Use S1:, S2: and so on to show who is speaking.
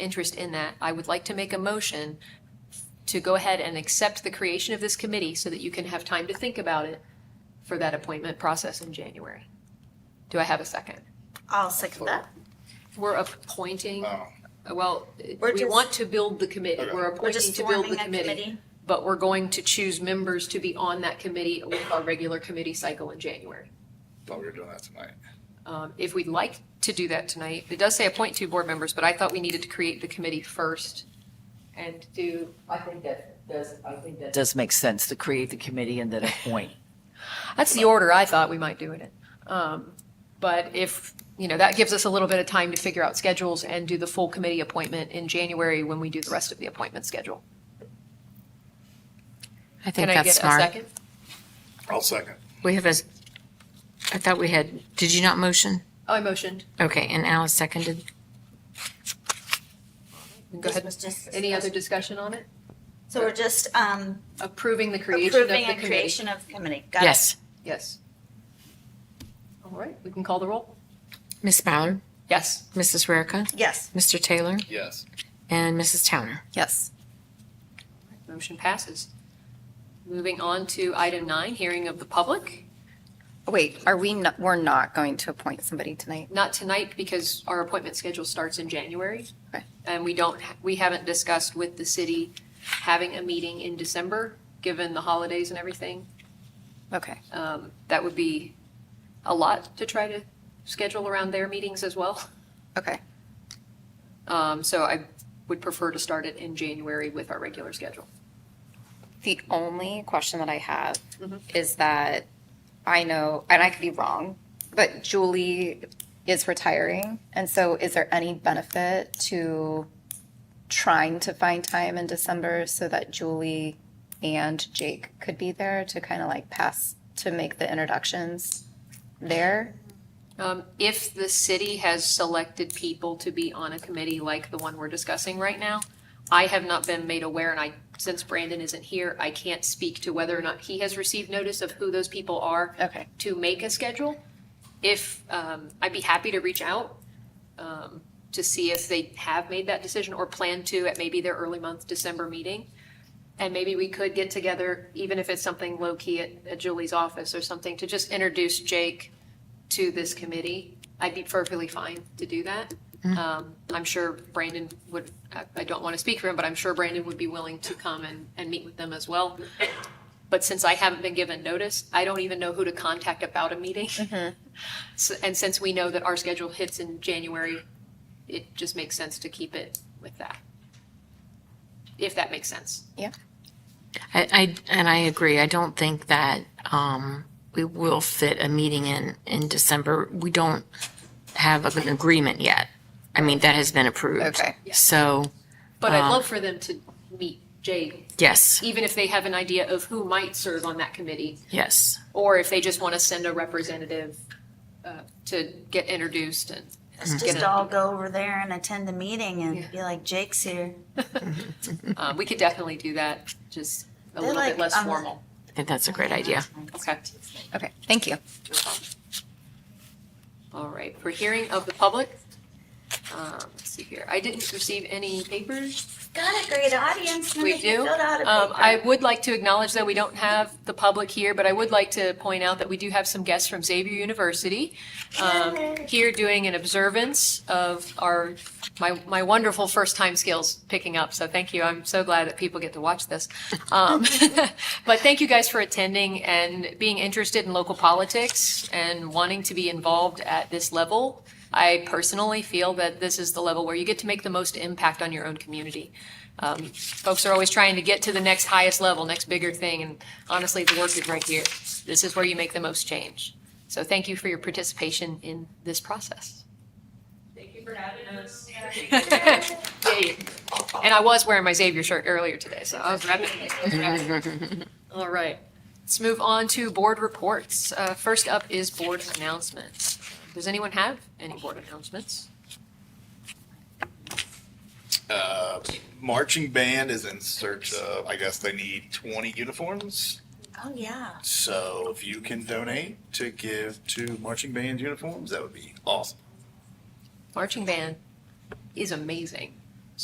S1: interest in that, I would like to make a motion to go ahead and accept the creation of this committee so that you can have time to think about it for that appointment process in January. Do I have a second?
S2: I'll second that.
S1: We're appointing,
S3: Oh,
S1: well,
S2: We're
S1: we
S2: just-
S1: want to build the committee.
S3: Okay.
S1: We're
S2: We're
S1: appointing
S2: just
S1: to build
S2: forming
S1: the
S2: a
S1: committee.
S2: committee.
S1: But we're going to choose members to be on that committee with our regular committee cycle in January.
S3: thought we were doing that tonight.
S1: Um, If we'd like to do that tonight, it does say appoint two board members, but I thought we needed to create the committee first and do.
S4: I think that does, I think that.
S5: does make sense to create the committee and then appoint.
S1: That's the order I thought we might do it in. Um, But if, you know, that gives us a little bit of time to figure out schedules and do the full committee appointment in January when we do the rest of the appointment schedule.
S6: I think
S1: Can I get
S6: that's
S1: a
S6: smart.
S1: second?
S3: I'll second.
S6: We have a, s- I thought we had, did you not motion?
S1: Oh, I motioned.
S6: Okay, and Alice seconded.
S1: Go
S2: This
S1: ahead.
S2: was just
S1: Any other
S2: discussed.
S1: discussion on it?
S2: So we're just um,
S1: Approving the creation of the
S2: approving a
S1: committee.
S2: creation of committee. Got it.
S6: Yes.
S1: Yes. All right, we can call the roll?
S6: Ms. Ballard,
S1: Yes.
S6: Mrs. Rarica,
S2: Yes.
S6: Mr. Taylor,
S3: Yes.
S6: and Mrs. Towner.
S1: Yes. Motion passes. Moving on to item nine, hearing of the public.
S7: Wait, are we, not- we're not going to appoint somebody tonight?
S1: Not tonight because our appointment schedule starts in January.
S7: Okay.
S1: And we don't, we haven't discussed with the city having a meeting in December, given the holidays and everything.
S7: Okay.
S1: Um, That would be a lot to try to schedule around their meetings as well.
S7: Okay.
S1: Um, So I would prefer to start it in January with our regular schedule.
S7: The only question that I have is that I know, and I could be wrong, but Julie is retiring. And so is there any benefit to trying to find time in December so that Julie and Jake could be there to kind of like pass, to make the introductions there?
S1: Um, If the city has selected people to be on a committee like the one we're discussing right now, I have not been made aware, and I, since Brandon isn't here, I can't speak to whether or not he has received notice of who those people are
S7: Okay.
S1: to make a schedule. If, um, I'd be happy to reach out um, to see if they have made that decision or plan to at maybe their early month December meeting. And maybe we could get together, even if it's something low-key at at Julie's office or something, to just introduce Jake to this committee. I'd be perfectly fine to do that. Um, I'm sure Brandon would, I- I don't want to speak for him, but I'm sure Brandon would be willing to come and, and meet with them as well. But since I haven't been given notice, I don't even know who to contact about a meeting.
S2: Mm-hmm.
S1: S- And since we know that our schedule hits in January, it just makes sense to keep it with that. If that makes sense.
S6: I, I, and I agree. I don't think that, um, we will fit a meeting in, in December. We don't have an agreement yet. I mean, that has been approved.
S7: Okay.
S6: So,
S1: But I'd
S6: Um,
S1: love for them to meet Jay,
S6: yes,
S1: even if they have an idea of who might serve on that committee,
S6: yes.
S1: or if they just want to send a representative uh, to get introduced and.
S6: Mm-hmm.
S2: Let's
S1: get
S2: just
S1: it.
S2: all go over there and attend the meeting
S1: Yeah.
S2: and be like, Jake's here.
S1: Uh, We could definitely do that, just a
S2: They're
S1: little bit
S2: like,
S1: less
S2: um,
S1: formal.
S6: I think that's a great idea.
S1: Okay.
S7: Okay. Thank you.
S1: All right, for hearing of the public, um, let's see here, I didn't receive any papers.
S2: Got a great audience.
S1: We
S2: Nobody
S1: do.
S2: filled out a
S1: Um,
S2: paper.
S1: I would like to acknowledge that we don't have the public here, but I would like to point out that we do have some guests from Xavier University um, here doing an observance of our, my, my wonderful first-time skills picking up. So thank you. I'm so glad that people get to watch this. Um, But thank you guys for attending and being interested in local politics and wanting to be involved at this level. I personally feel that this is the level where you get to make the most impact on your own community. Um, Folks are always trying to get to the next highest level, next bigger thing, and honestly, the work is right here. This is where you make the most change. So thank you for your participation in this process. Thank you for having us. And I was wearing my Xavier shirt earlier today, so I was grabbing it. I was grabbing it. All right, let's move on to board reports. Uh, First up is board announcements. Does anyone have any board announcements?
S3: Uh, marching band is in search of, I guess they need twenty uniforms.
S2: Oh, yeah.
S3: So if you can donate to give to marching band uniforms, that would be awesome.
S1: Marching band is amazing.